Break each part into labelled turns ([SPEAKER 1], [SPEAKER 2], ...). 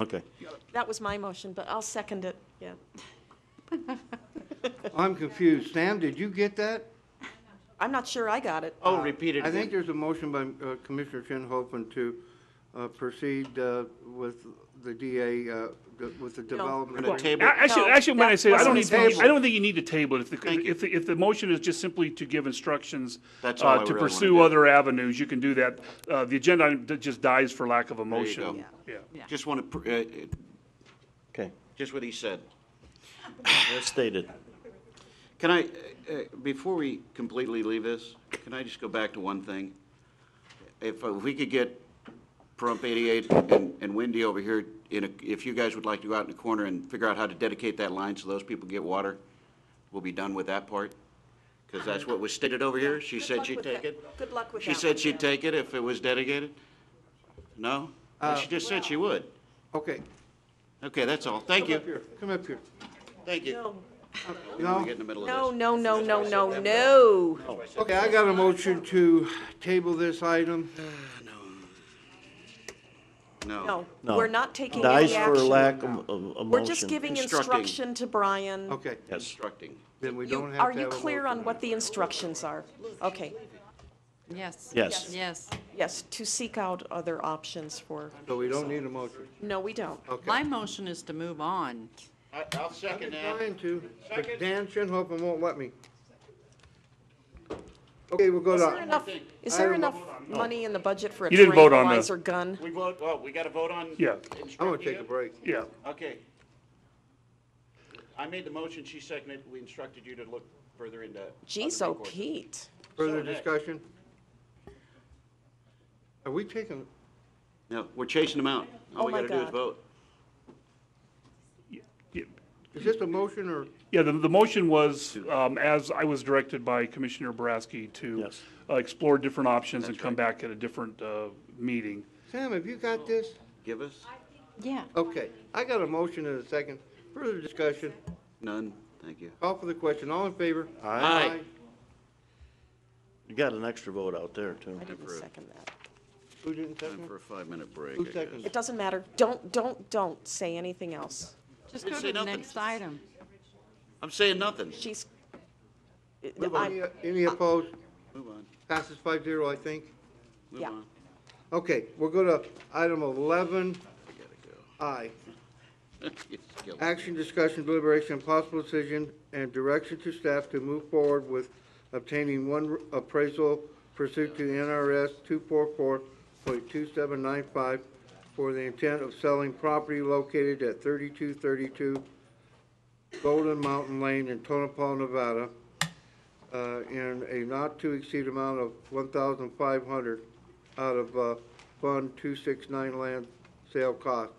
[SPEAKER 1] Okay.
[SPEAKER 2] That was my motion, but I'll second it, yeah.
[SPEAKER 3] I'm confused. Sam, did you get that?
[SPEAKER 2] I'm not sure I got it.
[SPEAKER 4] Oh, repeat it
[SPEAKER 3] I think
[SPEAKER 4] again.
[SPEAKER 3] there's a motion by uh, Commissioner Shinhopin to uh, proceed uh, with the DA, uh, de- with the development.
[SPEAKER 1] We're gonna
[SPEAKER 3] agreement.
[SPEAKER 1] table
[SPEAKER 5] A-
[SPEAKER 1] it.
[SPEAKER 5] Actually,
[SPEAKER 2] No,
[SPEAKER 5] actually, when I
[SPEAKER 2] that
[SPEAKER 5] say, I don't
[SPEAKER 2] wasn't
[SPEAKER 5] need, to-
[SPEAKER 3] tabled.
[SPEAKER 5] I don't think you need to table it. If the,
[SPEAKER 1] Thank you.
[SPEAKER 5] if, the- if the motion is just simply to give instructions
[SPEAKER 1] That's all I
[SPEAKER 5] uh,
[SPEAKER 1] really
[SPEAKER 5] to
[SPEAKER 1] wanna
[SPEAKER 5] pursue
[SPEAKER 1] do.
[SPEAKER 5] other avenues, you can do that. Uh, the agenda item d- just dies for lack of a motion.
[SPEAKER 1] go.
[SPEAKER 5] Yeah.
[SPEAKER 4] Just want to,
[SPEAKER 1] Okay,
[SPEAKER 4] uh, just what he said.
[SPEAKER 1] as stated.
[SPEAKER 4] Can I, uh, uh, before we completely leave this, can I just go back to one thing? If uh, we could get Pahrump 88 and and Wendy over here, in a- if you guys would like to go out in the corner and figure out how to dedicate that line so those people get water, we'll be done with that part. Because that's what was stated over here. She
[SPEAKER 2] Good
[SPEAKER 4] said
[SPEAKER 2] luck
[SPEAKER 4] she'd
[SPEAKER 2] with
[SPEAKER 4] take
[SPEAKER 2] that-
[SPEAKER 4] it.
[SPEAKER 2] Good luck with that.
[SPEAKER 4] She said
[SPEAKER 2] one,
[SPEAKER 4] she'd
[SPEAKER 2] yeah.
[SPEAKER 4] take it if it was dedicated? No? She just said she would.
[SPEAKER 3] Okay.
[SPEAKER 4] Okay, that's all. Thank
[SPEAKER 3] Come up
[SPEAKER 4] you.
[SPEAKER 3] here. Come up here.
[SPEAKER 4] Thank you.
[SPEAKER 2] No,
[SPEAKER 4] We get in the middle of this.
[SPEAKER 2] no, no, no, no, no, no.
[SPEAKER 3] Okay, I got a motion to table this item.
[SPEAKER 4] No.
[SPEAKER 2] No,
[SPEAKER 1] No.
[SPEAKER 2] we're not taking
[SPEAKER 1] Dies
[SPEAKER 2] any
[SPEAKER 1] for
[SPEAKER 2] action.
[SPEAKER 1] lack of, of a motion.
[SPEAKER 2] We're just giving
[SPEAKER 4] Instructing.
[SPEAKER 2] instruction to Brian.
[SPEAKER 3] Okay,
[SPEAKER 1] Yes,
[SPEAKER 4] Instructing.
[SPEAKER 3] then we
[SPEAKER 2] You-
[SPEAKER 3] don't have
[SPEAKER 2] Are
[SPEAKER 3] to
[SPEAKER 2] you
[SPEAKER 3] have a
[SPEAKER 2] clear
[SPEAKER 3] motion.
[SPEAKER 2] on what the instructions are? Okay,
[SPEAKER 6] Yes.
[SPEAKER 1] Yes.
[SPEAKER 6] Yes.
[SPEAKER 2] yes, to seek out other options for,
[SPEAKER 3] So we don't need a motion.
[SPEAKER 2] no, we don't.
[SPEAKER 3] Okay.
[SPEAKER 6] My motion is to move on.
[SPEAKER 4] I- I'll second
[SPEAKER 3] I'm
[SPEAKER 4] that.
[SPEAKER 3] trying to, but Dan Shinhopin won't let me. Okay, we'll go
[SPEAKER 2] Is there
[SPEAKER 3] to,
[SPEAKER 2] enough, is there
[SPEAKER 3] I don't know.
[SPEAKER 2] enough money in the budget for a
[SPEAKER 5] You didn't vote on the-
[SPEAKER 2] tranquilizer gun?
[SPEAKER 4] We vote, well, we got to vote on.
[SPEAKER 5] Yeah.
[SPEAKER 3] I'm gonna
[SPEAKER 4] instructing
[SPEAKER 3] take a
[SPEAKER 4] you?
[SPEAKER 3] break.
[SPEAKER 5] Yeah.
[SPEAKER 4] Okay. I made the motion, she seconded, it. we instructed you to look further into. other
[SPEAKER 2] Geez, oh
[SPEAKER 4] recourse.
[SPEAKER 2] Pete.
[SPEAKER 3] Further
[SPEAKER 4] next.
[SPEAKER 3] discussion? Are we taking,
[SPEAKER 4] No, we're chasing them out.
[SPEAKER 2] Oh
[SPEAKER 4] All we
[SPEAKER 2] my
[SPEAKER 4] got to do is
[SPEAKER 2] God.
[SPEAKER 4] vote.
[SPEAKER 5] Yeah.
[SPEAKER 3] is this a motion or?
[SPEAKER 5] Yeah, the, the motion was, um, as I was directed by Commissioner Boraski to
[SPEAKER 1] Yes.
[SPEAKER 5] uh, explore different options and come back at a different, uh, meeting.
[SPEAKER 3] Sam, have you got this?
[SPEAKER 4] Give us?
[SPEAKER 6] Yeah.
[SPEAKER 3] Okay, I got a motion and a second. Further discussion,
[SPEAKER 4] None, thank you.
[SPEAKER 3] call for the question, all in favor?
[SPEAKER 4] Aye.
[SPEAKER 1] you got an extra vote out there, too.
[SPEAKER 2] I didn't second that.
[SPEAKER 3] Who didn't second?
[SPEAKER 4] Time
[SPEAKER 3] it?
[SPEAKER 4] for a five-minute break.
[SPEAKER 3] Who
[SPEAKER 4] I guess.
[SPEAKER 3] seconded?
[SPEAKER 2] It doesn't matter. Don't, don't, don't say anything else.
[SPEAKER 6] Just
[SPEAKER 4] Didn't
[SPEAKER 6] go
[SPEAKER 4] say
[SPEAKER 6] to the
[SPEAKER 4] nothing.
[SPEAKER 6] next item.
[SPEAKER 4] I'm saying nothing.
[SPEAKER 2] She's,
[SPEAKER 3] Move on.
[SPEAKER 2] I'm,
[SPEAKER 3] Any- Any opposed?
[SPEAKER 4] Move on,
[SPEAKER 3] Passes five zero, I think.
[SPEAKER 4] move
[SPEAKER 2] Yeah.
[SPEAKER 4] on.
[SPEAKER 3] Okay, we'll go to item eleven
[SPEAKER 4] I gotta
[SPEAKER 3] I.
[SPEAKER 4] go. It's killing me.
[SPEAKER 3] Action, discussion, deliberation, and possible decision, and direction to staff to move forward with obtaining one appraisal pursuant to NRS two four four point two seven nine five for the intent of selling property located at thirty-two thirty-two Golden Mountain Lane in Tonopah, Nevada, uh, in a not-to-exceed amount of one thousand five hundred out of, uh, Fund two six nine land sale cost.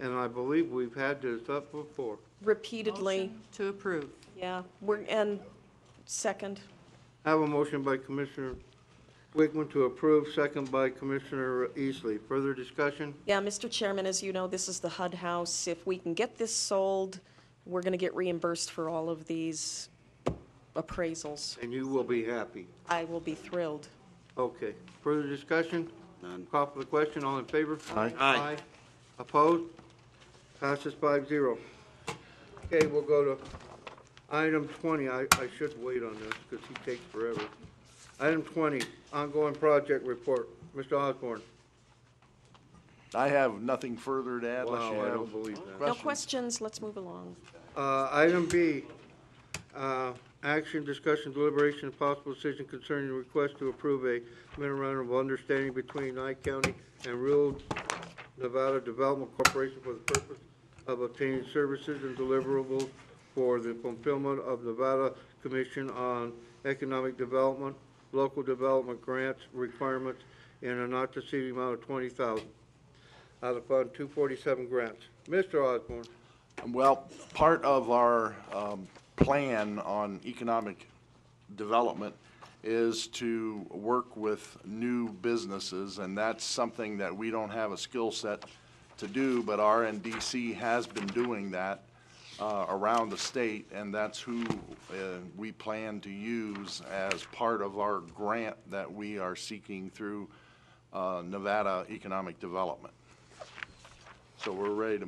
[SPEAKER 3] And I believe we've had this up before.
[SPEAKER 2] repeatedly,
[SPEAKER 6] Motion To approve.
[SPEAKER 2] yeah, we're, and second,
[SPEAKER 3] I have a motion by Commissioner Wickman to approve, second by Commissioner Eastley. Further discussion?
[SPEAKER 2] yeah, Mr. Chairman, as you know, this is the HUD house. If we can get this sold, we're gonna get reimbursed for all of these appraisals.
[SPEAKER 3] And you will be happy.
[SPEAKER 2] I will be thrilled.
[SPEAKER 3] Okay. Further discussion?
[SPEAKER 4] None.
[SPEAKER 3] Call for the question. All in favor?
[SPEAKER 1] Aye.
[SPEAKER 4] Aye.
[SPEAKER 3] Opposed? Passes five zero. Okay, we'll go to item twenty. I, I should wait on this because he takes forever. Item twenty, ongoing project report. Mr. Osborne.
[SPEAKER 7] I have nothing further to add unless you
[SPEAKER 3] Wow, I don't
[SPEAKER 7] have
[SPEAKER 3] believe that.
[SPEAKER 2] No
[SPEAKER 7] questions.
[SPEAKER 2] questions, let's move along.
[SPEAKER 3] Uh, Item B, uh, action, discussion, deliberation, and possible decision concerning the request to approve a memorandum of understanding between Nye County and Rural Nevada Development Corporation for the purpose of obtaining services and deliverables for the fulfillment of Nevada Commission on Economic Development, Local Development Grants Requirements in a not to exceed amount of twenty thousand out of Fund two forty-seven grants. Mr. Osborne.
[SPEAKER 7] Well, part of our um, plan on economic development is to work with new businesses, and that's something that we don't have a skill set to do, but RNDC has been doing that uh, around the state, and that's who uh, we plan to use as part of our grant that we are seeking through uh, Nevada Economic Development. So we're ready to